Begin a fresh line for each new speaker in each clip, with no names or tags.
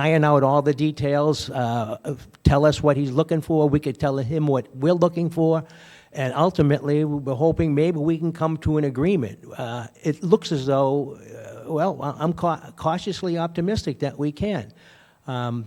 iron out all the details, uh, of- tell us what he's looking for, we could tell him what we're looking for, and ultimately, we're hoping maybe we can come to an agreement. Uh, It looks as though, uh, well, I- I'm cau- cautiously optimistic that we can. Um,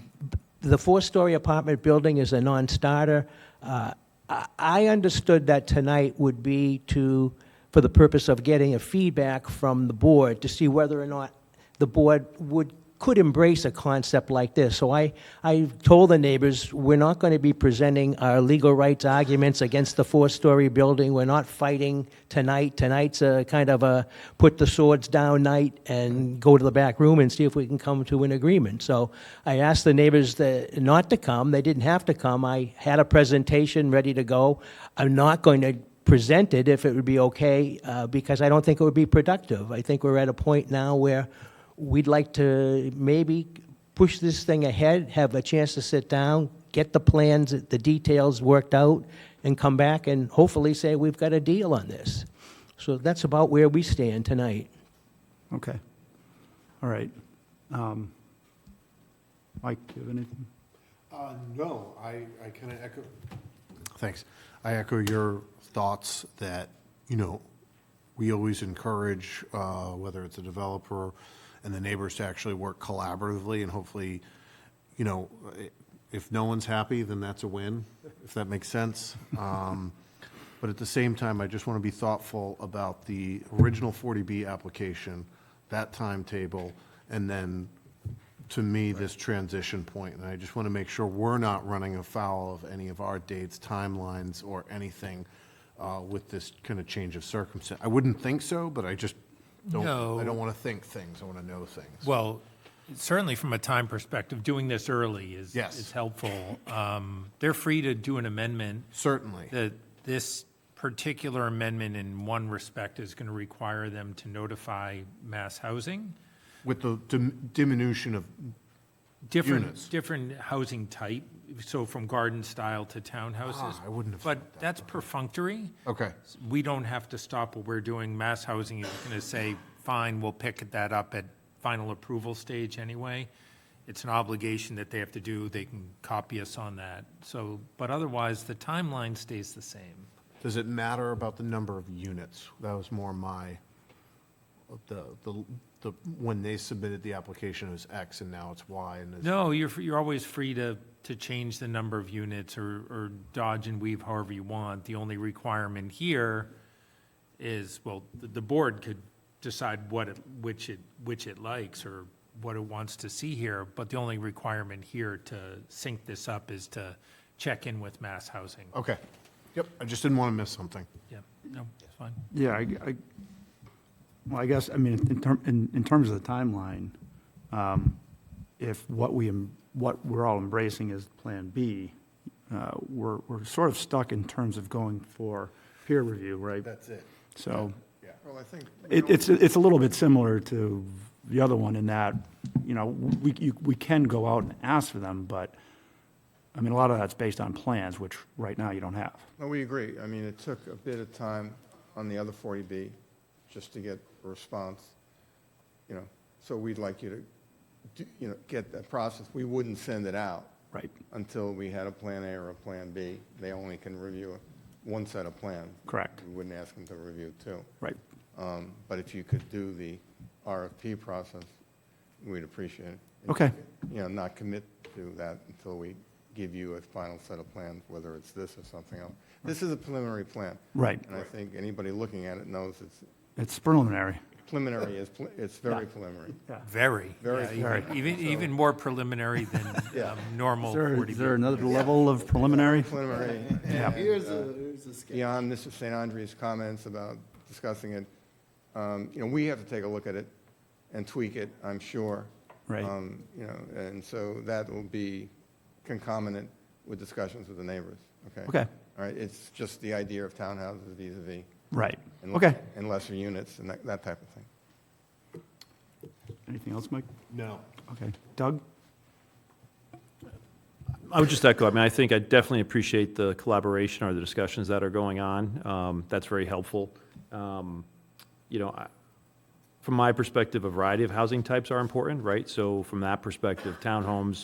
The four-story apartment building is a non-starter. Uh, I- I understood that tonight would be to, for the purpose of getting a feedback from the board to see whether or not the board would, could embrace a concept like this. So I, I told the neighbors, we're not going to be presenting our legal rights arguments against the four-story building. We're not fighting tonight. Tonight's a kind of a put the swords down night and go to the back room and see if we can come to an agreement. So I asked the neighbors that, not to come. They didn't have to come. I had a presentation ready to go. I'm not going to presented if it would be okay, uh, because I don't think it would be productive. I think we're at a point now where we'd like to maybe push this thing ahead, have a chance to sit down, get the plans, the details worked out, and come back and hopefully say, we've got a deal on this. So that's about where we stand tonight.
Okay. All right. Um, Mike, do you have anything?
Uh, No, I, I kind of echo, thanks. I echo your thoughts that, you know, we always encourage, uh, whether it's a developer and the neighbors to actually work collaboratively and hopefully, you know, i- if no one's happy, then that's a win, if that makes sense. Um, But at the same time, I just want to be thoughtful about the original 40B application, that timetable, and then to me, this transition point, and I just want to make sure we're not running afoul of any of our dates, timelines, or anything uh, with this kind of change of circumstance. I wouldn't think so, but I just don't,
No.
I don't want to think things, I want to know things.
Well, certainly from a time perspective, doing this early is,
Yes.
is helpful. Um, They're free to do an amendment.
Certainly,
That this particular amendment in one respect is going to require them to notify mass housing.
with the dim- diminution of, Units.
Different, different housing type, so from garden style to townhouses.
Ah, I wouldn't have thought
But
that,
that's perfunctory.
okay,
We don't have to stop what we're doing. Mass Housing is going to say, fine, we'll pick that up at final approval stage anyway. It's an obligation that they have to do. They can copy us on that. So, but otherwise, the timeline stays the same.
does it matter about the number of units? That was more my, the, the, the when they submitted the application, it was X, and now it's Y, and it's.
No, you're, fr- you're always free to, to change the number of units or, or dodge and weave however you want. The only requirement here is, well, the, the board could decide what it, which it, which it likes or what it wants to see here, but the only requirement here to sync this up is to check in with mass housing.
Oh.
Okay, yep, I just didn't want to miss something.
Yeah, no, it's fine.
Yeah, I, I- well, I guess, I mean, in term, in, in terms of the timeline, um, if what we, em- what we're all embracing is Plan B, uh, we're, we're sort of stuck in terms of going for peer review, right?
That's it.
So
Yeah. Well, I think.
It, it's, it's a little bit similar to the other one in that, you know, we, you, we can go out and ask for them, but, I mean, a lot of that's based on plans, which right now you don't have.
No, we agree. I mean, it took a bit of time on the other 40B just to get a response, you know, so we'd like you to, do- you know, get that process. We wouldn't send it out
Right.
until we had a Plan A or a Plan B. They only can review one set of plans.
Correct.
We wouldn't ask them to review two.
Right.
Um, But if you could do the RFP process, we'd appreciate it.
Okay.
You know, not commit to that until we give you a final set of plans, whether it's this or something else. This is a preliminary plan.
Right.
And I think anybody looking at it knows it's
It's preliminary.
preliminary, is pl- it's very preliminary.
Very.
Very
Yeah,
preliminary,
Even, even more preliminary than
Yeah.
um, normal 40B.
another level of preliminary?
Preliminary,
Here's a, here's a sketch.
beyond Mr. St. Andre's comments about discussing it, um, you know, we have to take a look at it and tweak it, I'm sure.
Right.
Um, You know, and so that will be concomitant with discussions with the neighbors, okay?
Okay.
All right, it's just the idea of townhouses vis a vis.
Right. Okay.
And lesser units and that, that type of thing.
Anything else, Mike?
No.
Okay. Doug?
I would just echo, I mean, I think I definitely appreciate the collaboration or the discussions that are going on. Um, That's very helpful. Um, You know, I- from my perspective, a variety of housing types are important, right? So from that perspective, townhomes,